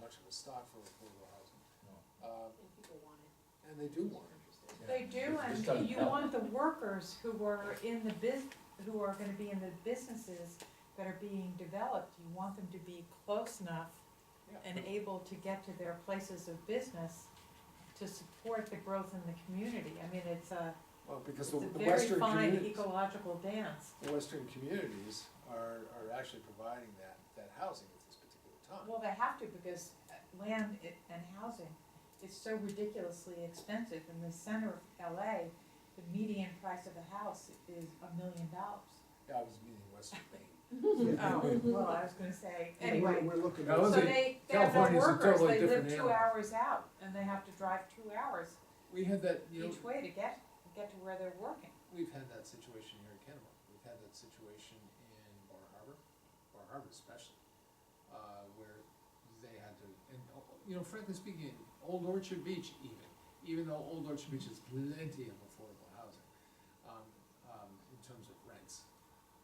actual stock for affordable housing. Uh, And people want it. And they do want it. They do, It's done and you now. want the workers who were in the bus, who are gonna be in the businesses that are being developed, you want them to be close enough Yeah. and able to get to their places of business to support the growth in the community. I mean, it's a, Well, because it's the a the very western fine communities, ecological dance. the western communities are, are actually providing that, that housing at this particular time. Well, they have to because uh, land i- and housing is so ridiculously expensive. In the center of LA, the median price of a house is a million dollars. Yeah, I was meaning western Maine. Oh, well, I was gonna say, Yeah, we're- anyway, We're looking I so was at, Those are- they, they have no California's a workers, totally they live different two animal. hours out, and they have to drive two hours We had that, you know, each way to get, get to where they're working. we've had that situation here in Kennebunk, we've had that situation in Bar Harbor, Bar Harbor especially, uh, where they had to, and, oh, you know, frankly speaking, Old Orchard Beach even, even though Old Orchard Beach has plenty of affordable housing, um, um, in terms of rents,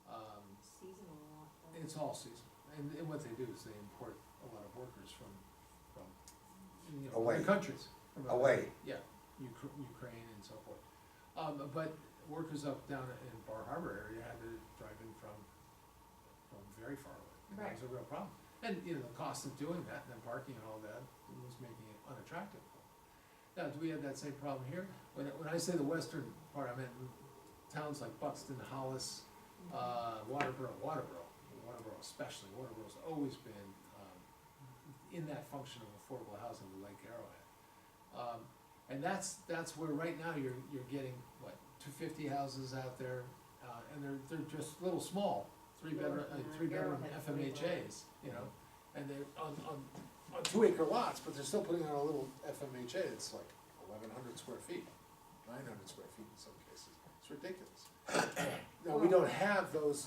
um, Seasonal lot. though. it's all seasonal, and, and what they do is they import a lot of workers from, from, you know, Away. other countries. from other- Away. Yeah, Ukra- Ukraine and so forth. Um, but workers up down in Bar Harbor area had to drive in from, from very far away. And That was a real problem. And, you know, the cost of doing that and the parking and all that was making it unattractive for them. Now, do we have that same problem here? When, I- when I say the western part, I meant towns like Buxton, Hollis, Mm. Mm-hmm. uh, Waterboro, Waterboro, Waterboro especially, Waterboro's always been, um, in that function of affordable housing with Lake Arrowhead. Um, and that's, that's where right now you're, you're getting, what, two fifty houses out there, uh, and they're, they're just little small, three bedroom, uh, Yeah, three bedroom Arrowhead's pretty FMHAs, you know? And they're on, on, on two acre lots, but they're still putting on a little FMHA that's like eleven hundred square feet, nine hundred square feet in some cases, it's ridiculous. Now, we don't have those,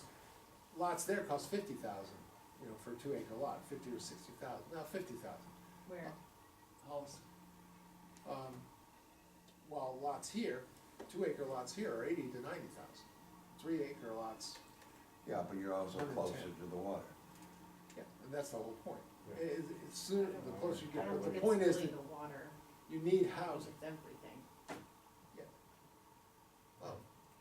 lots there cost fifty thousand, you know, for a two acre lot, fifty or sixty thousand, now fifty thousand. Where, Hollis. Um, while lots here, two acre lots here are eighty to ninety thousand. Three acre lots, yeah, but you're also closer to the water. yeah, and that's the whole point. Yeah. It, it, it's sooner, the closer you I get, don't but think the it's point is really that the water, you need I think housing. it's everything.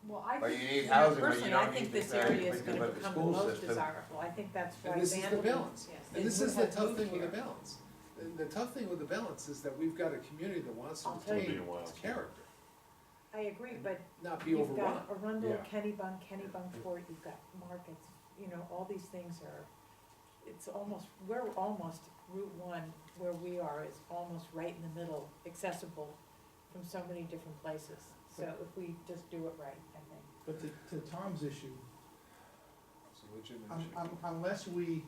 well, I But you think, need you know, housing, but you personally, don't I think need to this say area is anything gonna about the become the school most system. desirable, I think that's why And this is the Vanderbilt- balance. Yes. And this They is the would have tough moved thing with the here. balance. And the tough thing with the balance is that we've got a community that wants to I'll tell retain you. It'll be a its while. character, I agree, but not be you've overrun. got Arundel, Yeah. Kennybunk, Kennybunk Fort, you've got markets, you know, all these things are, it's almost, we're almost, Route One, where we are, is almost right in the middle, accessible from so many different places. So if we just do it right, I think. But to, to Tom's issue, It's a legitimate un- issue. un- unless we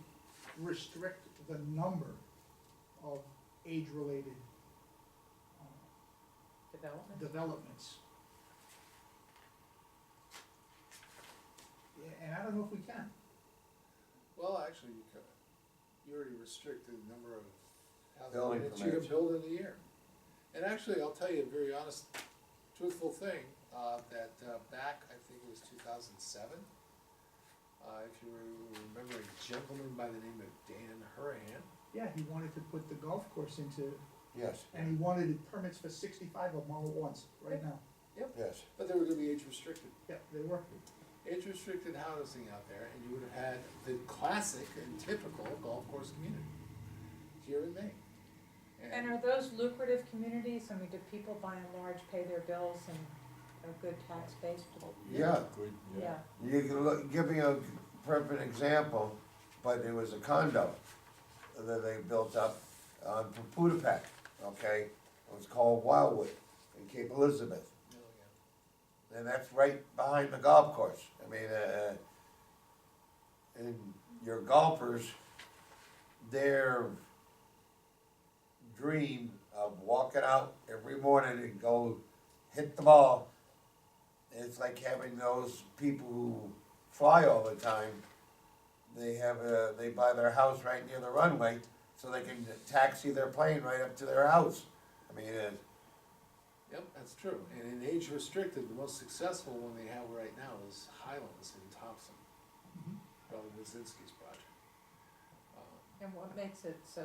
restrict the number of age-related uh, Development? developments. Yeah, And I don't know if we can. Well, actually, you could, you already restricted the number of Building houses that you can permits. build in a year. And actually, I'll tell you a very honest, truthful thing, uh, that, uh, back, I think it was two thousand seven, uh, if you re- remember a gentleman by the name of Dan Hurahan, Yeah, he wanted to put the golf course into, Yes, and he wanted permits for sixty-five of them all at once, right now. yes. but they were gonna be age restricted. Yeah, they were. Age restricted housing out there, and you would have had the classic and typical golf course community here in Maine. And are those lucrative communities? I mean, do people by and large pay their bills and are good tax base? Yeah, Good, Yeah, you can look, give me a perfect example, but it was a condo that they built up on Pudapec, okay? It was called Wildwood in Cape Elizabeth, Oh, yeah. and that's right behind the golf course. I mean, uh, and your golfers, their dream of walking out every morning and go hit the ball, it's like having those people who fly all the time. They have a, they buy their house right near the runway, so they can taxi their plane right up to their house. I mean, uh, Yep, that's true, and in age restricted, the most successful one they have right now is Highlands in Thompson, Brother Wazinski's project. Um, and what makes it so